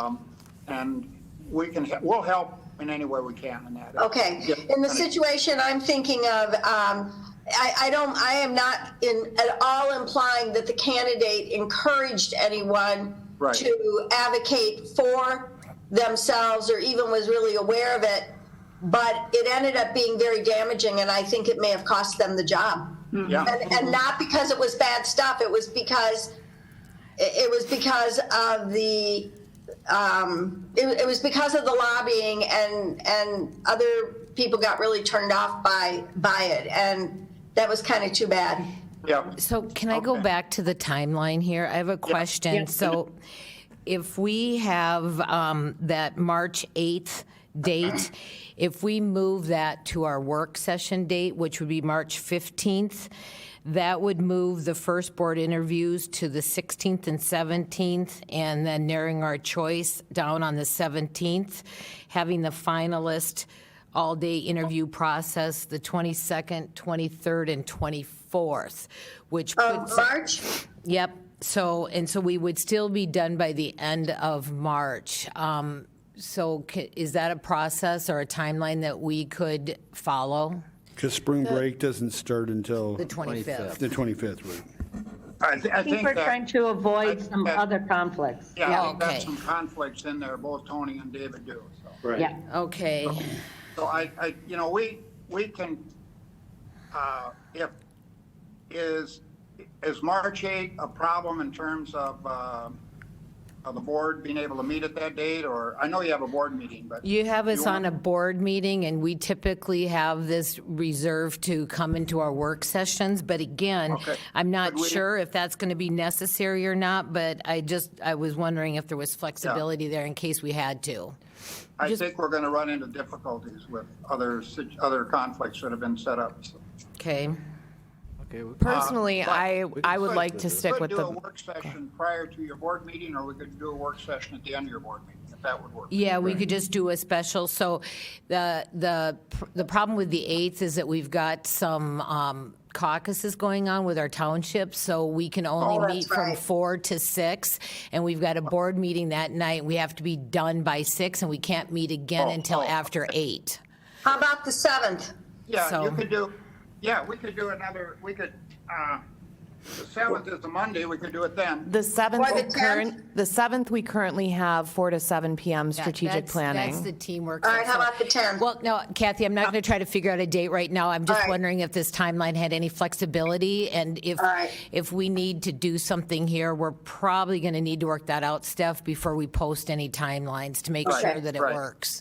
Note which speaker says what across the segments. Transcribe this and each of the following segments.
Speaker 1: Um, And we can, he- we'll help in any way we can in that.
Speaker 2: Okay, in the situation I'm thinking of, um, I, I don't, I am not in, at all implying that the candidate encouraged anyone
Speaker 1: Right.
Speaker 2: to advocate for themselves or even was really aware of it, but it ended up being very damaging and I think it may have cost them the job.
Speaker 1: Yeah,
Speaker 2: And, and not because it was bad stuff, it was because, it, it was because of the, um, it, it was because of the lobbying and, and other people got really turned off by, by it. And that was kind of too bad.
Speaker 1: yeah.
Speaker 3: So can I go
Speaker 1: Okay.
Speaker 3: back to the timeline here? I have a question. So if we have um, that March 8th date, if we move that to our work session date, which would be March 15th, that would move the first board interviews to the 16th and 17th, and then narrowing our choice down on the 17th, having the finalist all-day interview process the 22nd, 23rd, and 24th, which
Speaker 2: Uh,
Speaker 3: puts,
Speaker 2: March,
Speaker 3: yep, so, and so we would still be done by the end of March. Um, So ca- is that a process or a timeline that we could follow?
Speaker 4: Because spring break doesn't start until
Speaker 3: The
Speaker 4: the
Speaker 3: 25th?
Speaker 4: 25th, right?
Speaker 1: I thi-
Speaker 5: I think we're
Speaker 1: that-
Speaker 5: trying to
Speaker 1: I
Speaker 5: avoid
Speaker 1: think
Speaker 5: some
Speaker 1: that-
Speaker 5: other conflicts.
Speaker 1: Yeah, I think that's
Speaker 3: Okay.
Speaker 1: some conflicts in there, both Tony and David do. so.
Speaker 5: Yeah.
Speaker 3: Okay,
Speaker 1: So I, I, you know, we, we can, uh, if, is, is March 8 a problem in terms of, uh, of the board being able to meet at that date? Or, I know you have a board meeting, but.
Speaker 3: you have us
Speaker 1: want-
Speaker 3: on a board meeting, and we typically have this reserved to come into our work sessions, but again,
Speaker 1: Okay.
Speaker 3: I'm not
Speaker 1: But we-
Speaker 3: sure if that's going to be necessary or not, but I just, I was wondering if there was flexibility there in case we had to.
Speaker 1: I think we're going to run into difficulties with other, sit- other conflicts that have been set up. so.
Speaker 3: Okay.
Speaker 1: Uh,
Speaker 6: Personally, I, I would like to stick with
Speaker 1: We could do a
Speaker 6: the,
Speaker 1: work session prior to your board meeting, or we could do a work session at the end of your board meeting, if that would work.
Speaker 3: Yeah, we could just do a special. So the, the, the problem with the 8th is that we've got some um, caucuses going on with our townships, so we can
Speaker 2: Oh,
Speaker 3: only
Speaker 2: that's
Speaker 3: meet from
Speaker 2: right.
Speaker 3: 4 to 6, and we've got a board meeting that night. We have to be done by 6, and we can't meet again
Speaker 1: Oh,
Speaker 3: until
Speaker 1: oh,
Speaker 3: after 8.
Speaker 2: how about the 7th?
Speaker 1: Yeah, you
Speaker 3: So-
Speaker 1: could do, yeah, we could do another, we could, uh, the seventh is the Monday, we could do it then.
Speaker 6: the 7th,
Speaker 2: Or the
Speaker 6: we current,
Speaker 2: 10th?
Speaker 6: the 7th, we currently have 4 to 7 PM strategic
Speaker 3: That's- That's the
Speaker 6: planning.
Speaker 3: teamwork.
Speaker 2: All right, how
Speaker 3: So-
Speaker 2: about the 10th?
Speaker 3: Well, no, Kathy, I'm not going to try to figure out a date right now. I'm
Speaker 2: All
Speaker 3: just
Speaker 2: right.
Speaker 3: wondering if this timeline had any flexibility and if,
Speaker 2: All right.
Speaker 3: if we need to do something here, we're probably going to need to work that out, Steph, before we post any timelines to make
Speaker 1: Right,
Speaker 3: sure that it
Speaker 1: right.
Speaker 3: works.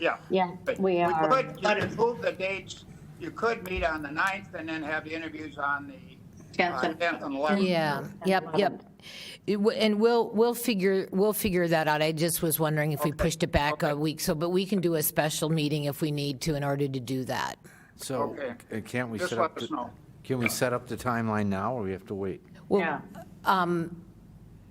Speaker 1: Yeah.
Speaker 5: Yeah,
Speaker 1: But
Speaker 5: we are.
Speaker 1: could- You could move the dates, you could meet on the ninth and then have the interviews on the uh,
Speaker 5: Tenth and-
Speaker 1: tenth and eleventh.
Speaker 3: Yeah, yep, yep. It w- And we'll, we'll figure, we'll figure that out. I just was wondering if we pushed it back a week, so, but we can do a special meeting if we need to in order to do that.
Speaker 7: So
Speaker 1: Okay.
Speaker 7: uh, can't we
Speaker 1: Just
Speaker 7: set
Speaker 1: let
Speaker 7: up,
Speaker 1: us
Speaker 7: the-
Speaker 1: know.
Speaker 7: can we set up the timeline now, or we have to wait?
Speaker 5: Yeah.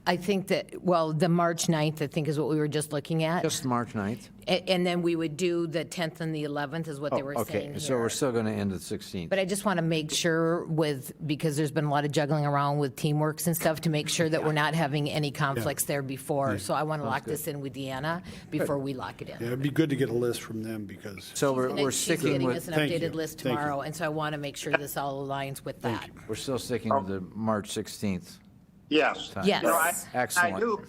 Speaker 3: I think that, well, the March 9th, I think, is what we were just looking at.
Speaker 7: Just March 9th?
Speaker 3: A- And then we would do the 10th and the 11th is what they were saying
Speaker 7: Oh, Okay, so we're
Speaker 3: here.
Speaker 7: still going to end at 16th.
Speaker 3: But I just want to make sure with, because there's been a lot of juggling around with teamworks and stuff, to make sure that we're not having any conflicts there before. So I want to lock this in with Deanna before we lock it
Speaker 4: Yeah,
Speaker 3: in.
Speaker 4: it'd be good to get a list from them because.
Speaker 7: So we're
Speaker 3: And
Speaker 7: we're
Speaker 3: she's
Speaker 7: sticking
Speaker 3: getting us
Speaker 7: with,
Speaker 3: an
Speaker 4: Thank you.
Speaker 3: updated list
Speaker 4: Thank you.
Speaker 3: tomorrow, and so I want to make sure this all aligns with that.
Speaker 7: we're still sticking
Speaker 1: Oh.
Speaker 7: with the March 16th.
Speaker 1: Yes.
Speaker 3: Yes.
Speaker 1: You know, I- I
Speaker 7: Excellent.
Speaker 1: do,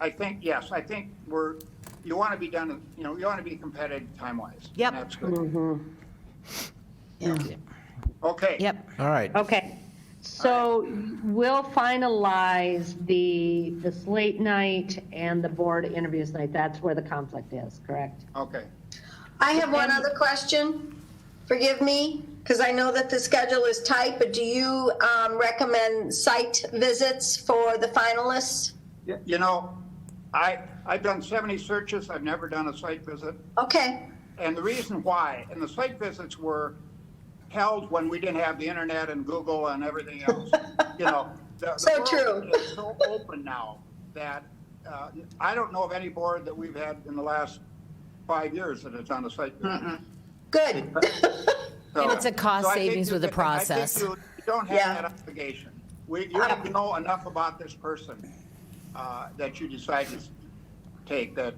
Speaker 1: I think, yes, I think we're, you want to be done, you know, you want to be competitive time-wise.
Speaker 3: Yep.
Speaker 1: That's good. Okay.
Speaker 3: Yep,
Speaker 7: All right.
Speaker 5: Okay, so we'll finalize the, the slate night and the board interviews night. That's where the conflict is, correct?
Speaker 1: Okay.
Speaker 2: I have one other question. Forgive me, because I know that the schedule is tight, but do you um, recommend site visits for the finalists?
Speaker 1: Y- You know, I, I've done 70 searches, I've never done a site visit.
Speaker 2: Okay,
Speaker 1: And the reason why, and the site visits were held when we didn't have the internet and Google and everything else, you know. the- the
Speaker 2: So
Speaker 1: world
Speaker 2: true.
Speaker 1: is so open now that, uh, I don't know of any board that we've had in the last five years that has done a site
Speaker 2: Hmm.
Speaker 1: visit.
Speaker 2: good.
Speaker 1: So-
Speaker 3: And it's a cost
Speaker 1: so I think
Speaker 3: savings
Speaker 1: you
Speaker 3: with the
Speaker 1: can- I think
Speaker 3: process.
Speaker 1: You you don't
Speaker 2: Yeah.
Speaker 1: have that obligation. We, you have to know enough about this person, uh, that you decide to take that